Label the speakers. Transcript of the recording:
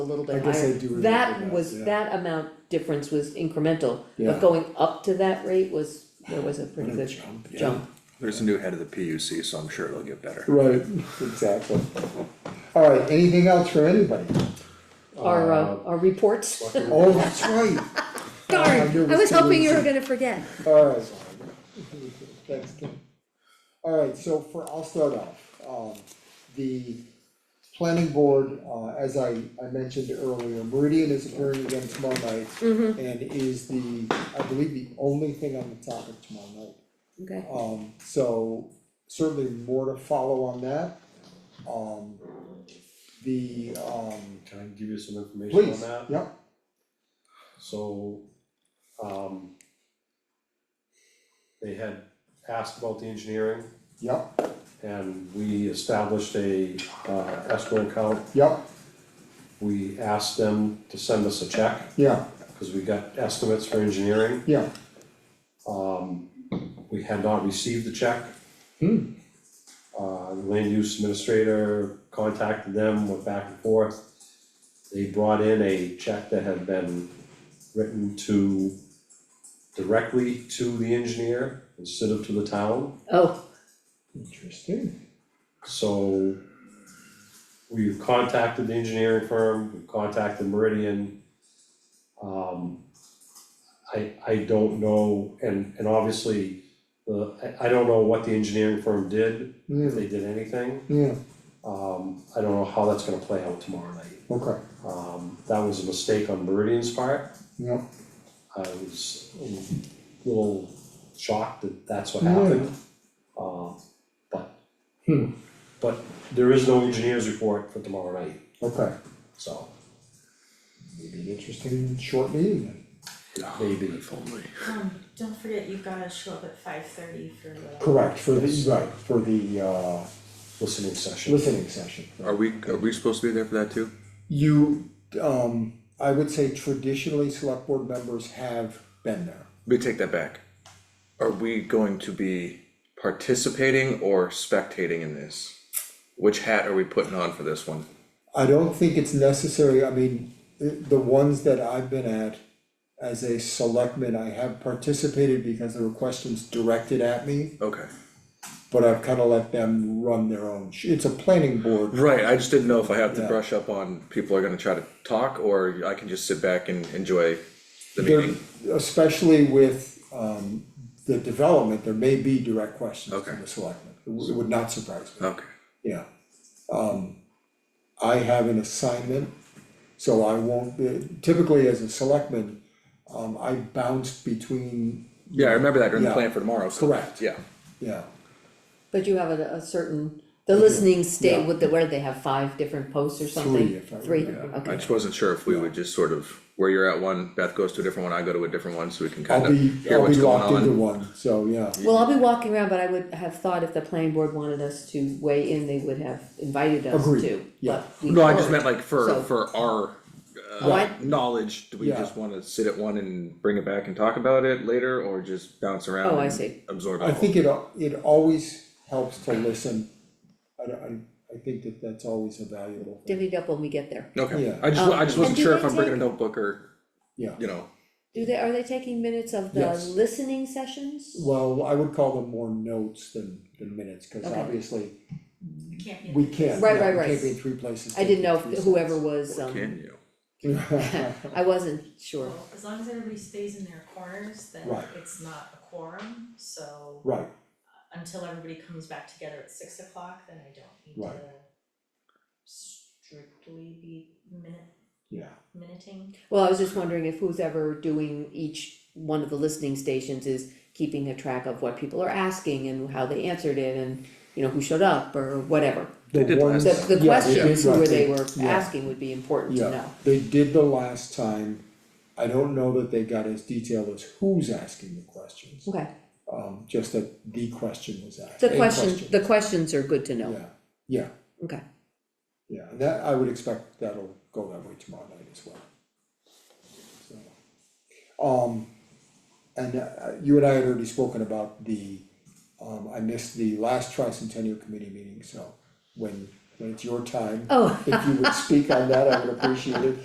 Speaker 1: a little
Speaker 2: I
Speaker 1: bit
Speaker 2: guess I
Speaker 1: higher.
Speaker 2: do remember
Speaker 1: That
Speaker 2: that,
Speaker 1: was,
Speaker 2: yeah.
Speaker 1: that amount difference was incremental,
Speaker 2: Yeah.
Speaker 1: but going up to that rate was, there was a pretty
Speaker 2: What a
Speaker 1: good
Speaker 2: jump, yeah.
Speaker 1: jump.
Speaker 3: There's a new head of the PUC, so I'm sure it'll get better.
Speaker 2: Right, exactly. All right, anything else for anybody?
Speaker 1: Our, uh, our reports,
Speaker 2: Oh, that's right.
Speaker 1: darn,
Speaker 2: there
Speaker 1: I was
Speaker 2: still
Speaker 1: hoping you
Speaker 2: is-
Speaker 1: were gonna forget.
Speaker 2: All right. Thanks, Kim. All right, so for, I'll start off. Um, the planning board, uh, as I, I mentioned earlier, Meridian is appearing again tomorrow night.
Speaker 1: Mm-hmm.
Speaker 2: And is the, I believe, the only thing on the topic tomorrow night.
Speaker 1: Okay,
Speaker 2: Um, so certainly more to follow on that. Um, the, um,
Speaker 4: Can I give you some information on
Speaker 2: please,
Speaker 4: that?
Speaker 2: yeah,
Speaker 4: So, um, they had asked about the engineering
Speaker 2: yeah,
Speaker 4: and we established a, uh, escrow account.
Speaker 2: yeah,
Speaker 4: We asked them to send us a check,
Speaker 2: yeah,
Speaker 4: cause we got estimates for engineering.
Speaker 2: yeah,
Speaker 4: Um, we had not received the check.
Speaker 2: Hmm.
Speaker 4: Uh, the land use administrator contacted them, went back and forth. They brought in a check that had been written to, directly to the engineer instead of to the town,
Speaker 1: oh,
Speaker 2: interesting,
Speaker 4: so we've contacted the engineering firm, we've contacted Meridian. Um, I, I don't know, and, and obviously, the, I, I don't know what the engineering firm did, if
Speaker 2: yeah,
Speaker 4: they did anything.
Speaker 2: yeah,
Speaker 4: Um, I don't know how that's gonna play out tomorrow night.
Speaker 2: okay,
Speaker 4: Um, that was a mistake on Meridian's part.
Speaker 2: yeah,
Speaker 4: I was a little shocked that that's what
Speaker 2: Yeah.
Speaker 4: happened. Uh, but,
Speaker 2: Hmm.
Speaker 4: but there is no engineer's report for tomorrow night,
Speaker 2: okay.
Speaker 4: so
Speaker 2: Maybe an interesting short meeting then.
Speaker 4: maybe.
Speaker 5: Um, don't forget, you've gotta show up at five thirty for the,
Speaker 2: Correct, for the, right, for the uh
Speaker 4: Listening session.
Speaker 2: listening session.
Speaker 3: Are we, are we supposed to be there for that too?
Speaker 2: You, um, I would say traditionally, select board members have been there.
Speaker 3: We take that back. Are we going to be participating or spectating in this? Which hat are we putting on for this one?
Speaker 2: I don't think it's necessary, I mean, the, the ones that I've been at as a selectman, I have participated because there were questions directed at me,
Speaker 3: Okay.
Speaker 2: but I've kind of let them run their own, sh- it's a planning board.
Speaker 3: Right, I just didn't know if I have to
Speaker 2: Yeah.
Speaker 3: brush up on people are gonna try to talk or I can just sit back and enjoy the
Speaker 2: There-
Speaker 3: meeting.
Speaker 2: Especially with, um, the development, there may be direct questions from
Speaker 3: Okay. Uh-huh.
Speaker 2: the selectmen, it w- it would not surprise me.
Speaker 3: Okay.
Speaker 2: Yeah, um, I have an assignment, so I won't, typically as a selectman, um, I bounce between,
Speaker 3: Yeah, I remember that during the
Speaker 2: Yeah.
Speaker 3: plan for tomorrow. so-
Speaker 2: Correct.
Speaker 3: Yeah.
Speaker 2: yeah,
Speaker 1: but you have a, a certain, the listening stay
Speaker 2: Yeah.
Speaker 1: with the, where they have five different posts or something?
Speaker 2: Three, if I remember.
Speaker 3: I
Speaker 1: okay,
Speaker 3: just wasn't sure if we would just sort of, where you're at one, Beth goes to a different one, I go to a different one, so we can kind
Speaker 2: I'll
Speaker 3: of
Speaker 2: be,
Speaker 3: hear
Speaker 2: I'll be
Speaker 3: what's going
Speaker 2: locked
Speaker 3: on.
Speaker 2: into one, so, yeah.
Speaker 1: well, I'll be walking around, but I would have thought if the planning board wanted us to weigh in, they would have invited us
Speaker 2: Agreed,
Speaker 1: to,
Speaker 2: yeah.
Speaker 1: but we
Speaker 3: No, I just
Speaker 1: weren't.
Speaker 3: meant like for,
Speaker 1: So-
Speaker 3: for our,
Speaker 1: Oh, I-
Speaker 3: uh, knowledge, do we
Speaker 2: Yeah.
Speaker 3: just wanna sit at one and bring it back and talk about it later, or just bounce around?
Speaker 1: Oh, I
Speaker 3: and
Speaker 1: see.
Speaker 3: Absorb it
Speaker 2: I
Speaker 3: all?
Speaker 2: think it, al- it always helps to listen, I, don't- I, I think that that's always a valuable thing,
Speaker 1: divvy it up when we get there.
Speaker 3: Okay,
Speaker 2: Yeah.
Speaker 3: I just, wa- I just
Speaker 1: Um,
Speaker 3: wasn't
Speaker 1: and do
Speaker 3: sure
Speaker 1: they
Speaker 3: if I'm bringing a
Speaker 1: take-
Speaker 3: notebook or,
Speaker 2: yeah.
Speaker 3: you know,
Speaker 1: Do they, are they taking minutes of the
Speaker 2: Yes.
Speaker 1: listening sessions?
Speaker 2: Well, I would call them more notes than, than minutes, cause
Speaker 1: Okay.
Speaker 2: obviously,
Speaker 5: you can't be.
Speaker 2: we can't,
Speaker 1: Right,
Speaker 2: yeah,
Speaker 1: right,
Speaker 2: we
Speaker 1: right.
Speaker 2: can't be in three places.
Speaker 1: I didn't know if whoever was,
Speaker 3: can
Speaker 1: um,
Speaker 3: you?
Speaker 2: know.
Speaker 1: I wasn't sure,
Speaker 5: Well, As long as everybody stays in their corners, then
Speaker 2: Right.
Speaker 5: it's not a quorum, so
Speaker 2: Right,
Speaker 5: until everybody comes back together at six o'clock, then I don't need
Speaker 2: Right.
Speaker 5: to strictly be minute,
Speaker 2: yeah.
Speaker 5: minuting.
Speaker 1: well, I was just wondering if who's ever doing each one of the listening stations is keeping a track of what people are asking and how they answered it and, you know, who showed up or whatever.
Speaker 3: They did
Speaker 2: ones-
Speaker 1: The, the
Speaker 2: Yeah, they
Speaker 1: questions
Speaker 2: did, right,
Speaker 1: where they were
Speaker 2: yeah,
Speaker 1: asking would be important to
Speaker 2: Yeah,
Speaker 1: know,
Speaker 2: they did the last time, I don't know that they got as detailed as who's asking the questions,
Speaker 1: okay,
Speaker 2: um, just that the question was asked,
Speaker 1: the
Speaker 2: a
Speaker 1: question, the questions are good to know,
Speaker 2: Yeah, yeah,
Speaker 1: okay.
Speaker 2: yeah, and that, I would expect that'll go that way tomorrow night as well. So, Um, and uh, you and I had already spoken about the, um, I missed the last tricentennial committee meeting, so when when it's your time.
Speaker 1: Oh.
Speaker 2: If you would speak on that, I would appreciate it.